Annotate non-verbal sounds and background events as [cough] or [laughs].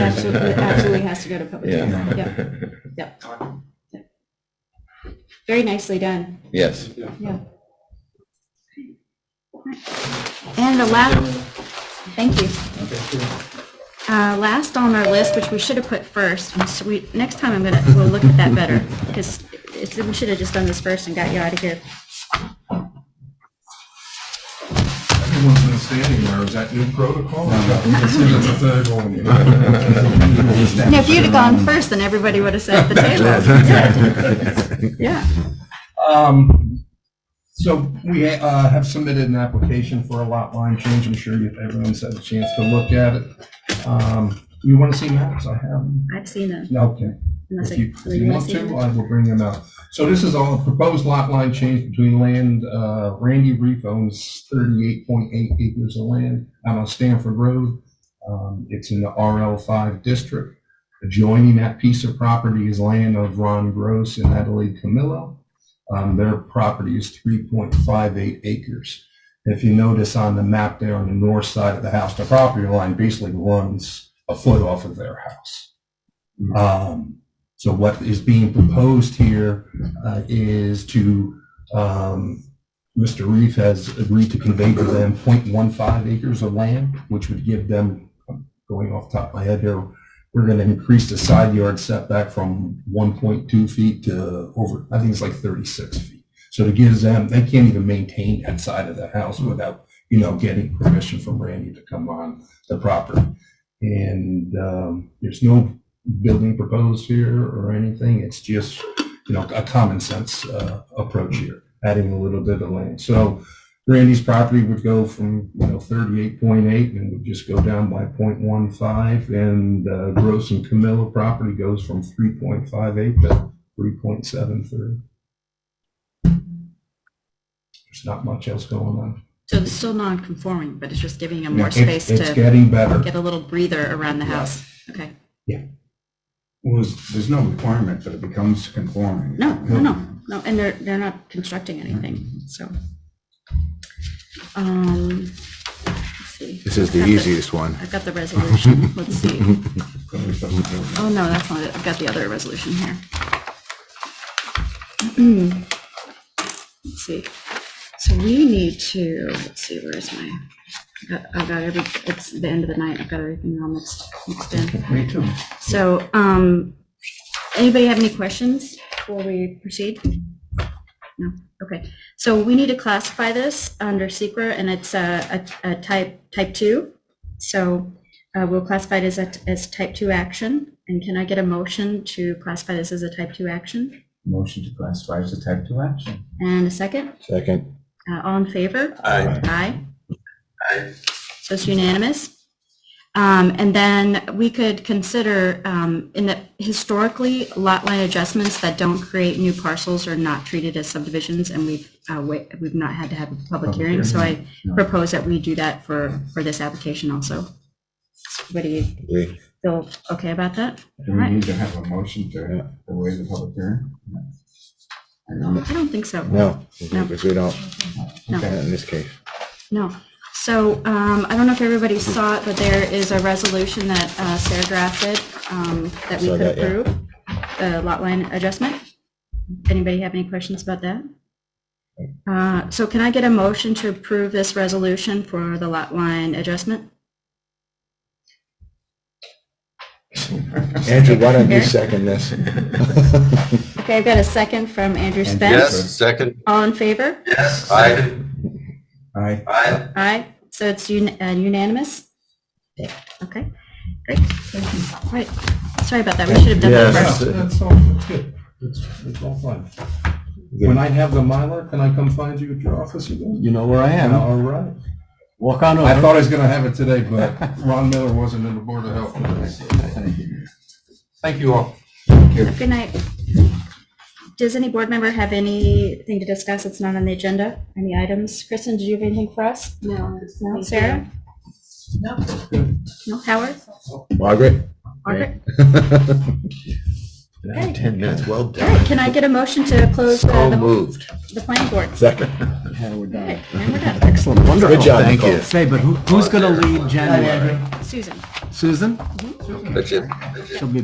absolutely, absolutely has to go to public hearing. Yep. Yeah. Very nicely done. [laughs] Yes. Yeah. And the last, thank you. Uh, Last on our list, which we should have put first, and so we, next time I'm gonna, we'll look at that better, because it's, we should have just done this first and got you out of here. Everyone's been standing there. Is that new protocol? Now, if you'd have gone first, then everybody would have sat at the table. Good. Yeah, [laughs] Um, so we uh, have submitted an application for a lot line change. I'm sure you- everyone's had a chance to look at it. Um, you want to see maps? I have. them. I've seen them. Okay. Unless I- If you, so if you wanna want see to, uh, them? I will bring them out. So this is all a proposed lot line change between land, uh, Randy Reef owns thirty-eight point eight acres of land out on Stanford Road. Um, it's in the RL five district. Adjoining that piece of property is land of Ron Gross and Adelaide Camillo. Um, their property is three point five eight acres. If you notice on the map there on the north side of the house, the property line basically runs a foot off of their house. Um, so what is being proposed here uh, is to, um, Mr. Reef has agreed to convey to them 0.15 acres of land, which would give them, I'm going off the top of my head here, we're going to increase the side yard setback from 1.2 feet to over, I think it's like 36 feet. So it gives them, they can't even maintain that side of the house without, you know, getting permission from Randy to come on the property. And um, there's no building proposed here or anything. It's just, you know, a common sense uh, approach here, adding a little bit of land. So Randy's property would go from, you know, 38.8 and would just go down by 0.15. And uh, Gross and Camilla property goes from 3.58 to 3.73. There's not much else going on. So it's still non-conforming, but it's just giving them Yeah, more it's- space It's to getting better. get a little breather around the house. Okay, Well, there's, there's no requirement that it becomes conforming. no, no, no, no, and they're, they're not constructing anything, so. Um, let's see. This is the I've got easiest one. I've got the [laughs] resolution, let's see. no. Oh, no, that's not it. I've got the other resolution here. [clears throat] Let's see. So we need to, let's see, where is my, I've got- I've got every, it's the end of the night. I've got everything all mixed, mixed in. Me too. So, um, anybody have any questions before we proceed? No, okay. So we need to classify this under secra, and it's a, a, a type, type two. So, uh, we'll classify it as a, as type two action. And can I get a motion to classify this as a type two action? Motion to classify as a type two action. And a second, Second. uh, all in favor? Aye. Aye. So it's unanimous. Um, And then we could consider, um, in that historically, lot line adjustments that don't create new parcels are not treated as subdivisions, and we've, uh, wa- we've not had to have a public hearing. So I No. propose that we do that for, for this application also. Everybody Agree. feel okay about that? Do we need to have a motion to waive the public hearing? I don't- I don't think so. No, No. because we don't, No. not in this case. No. So um, I don't know if everybody saw it, but there is a resolution that uh, Sarah drafted um, that we Saw could that, yeah. approve, the lot line adjustment. Anybody have any questions about that? Uh, So can I get a motion to approve this resolution for the lot line adjustment? Andrew, why don't you Eric? second this? Okay, I've got a second from Andrew Andrew. Spence. Yes. Yes, second. All in favor? Yes. Aye. Aye. Aye. Aye. So it's un- uh, unanimous? Okay, great. All right. Sorry about that. We should have done that Yes. first. That's that's all, that's good. That's, that's all fine. When I have the Mylar, can I come find you at your office again? You know where I am. All right. Walk on I over. thought I was gonna have it today, [laughs] but Ron Miller wasn't in the Board of Health. today, so Thank you all. Good night. Does any board member have anything to discuss that's not on the agenda? Any items? Kristen, did you have anything for us? No. No. Sarah? No. No. Howard? Margaret? Margaret? Okay. 10 minutes, well All right, done. can I get a motion to close uh, So the moved. the planning board? Second. Yeah, we're All done. right, And we're done. Excellent, wonderful. Good job, Thank Nicole. you. Say, but who, who's going to lead January? Susan? Susan? That's it. She'll be